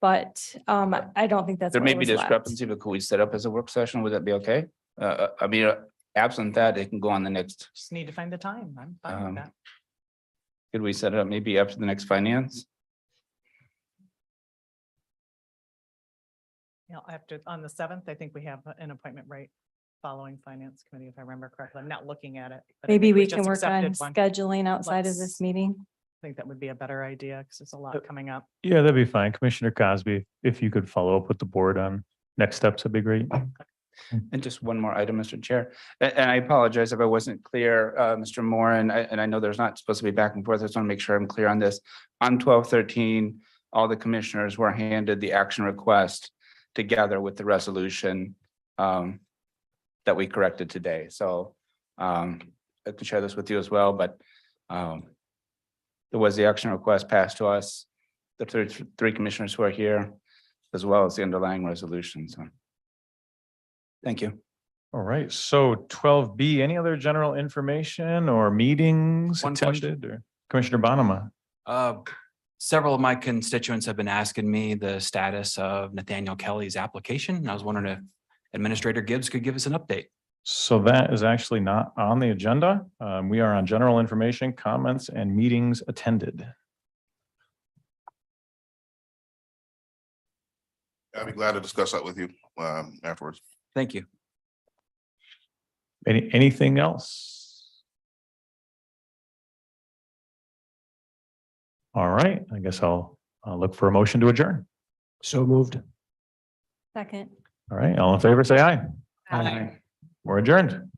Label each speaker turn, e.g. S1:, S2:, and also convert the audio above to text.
S1: but um, I don't think that's.
S2: There
S1: what
S2: may be
S1: was left.
S2: discrepancy, but could we set up as a work session? Would that be okay? Uh, Uh, I mean, uh, absent that, it can go on the next,
S3: Just need to find the time. I'm fine
S2: Um,
S3: with that.
S2: could we set it up maybe after the next finance?
S3: You know, after, on the seventh, I think we have an appointment right following finance committee, if I remember correctly. I'm not looking at it. but I
S1: Maybe
S3: think
S1: we can
S3: just
S1: work on
S3: accepted one. I
S1: scheduling outside of this
S3: Let's-
S1: meeting.
S3: think that would be a better idea because there's a
S4: Uh,
S3: lot coming up.
S4: Yeah, that'd be fine. Commissioner Cosby, if you could follow up with the board on next steps, that'd be great.
S2: And just one more item, Mr. Chair, A- and, I apologize if I wasn't clear, uh, Mr. Moore, and I, and I know there's not supposed to be back and forth. I just want to make sure I'm clear on this. On twelve thirteen, all the commissioners were handed the action request together with the resolution um, that we corrected today. So um, I can share this with you as well, but um, there was the action request passed to us, the three, three commissioners who are here, as well as the underlying resolution. So thank you.
S4: All right, so twelve B, any other general information or meetings
S5: One question.
S4: attended or Commissioner Bonema?
S5: Uh, Several of my constituents have been asking me the status of Nathaniel Kelly's application. and I was wondering if Administrator Gibbs could give us an update.
S4: So that is actually not on the agenda. Um, we are on general information, comments and meetings attended.
S6: I'd be glad to discuss that with you um afterwards.
S5: Thank you.
S4: Any, anything else? All right, I guess I'll, I'll look for a motion to adjourn. So moved.
S1: Second.
S4: All right, all in favor, say aye.
S3: Aye.
S4: We're adjourned.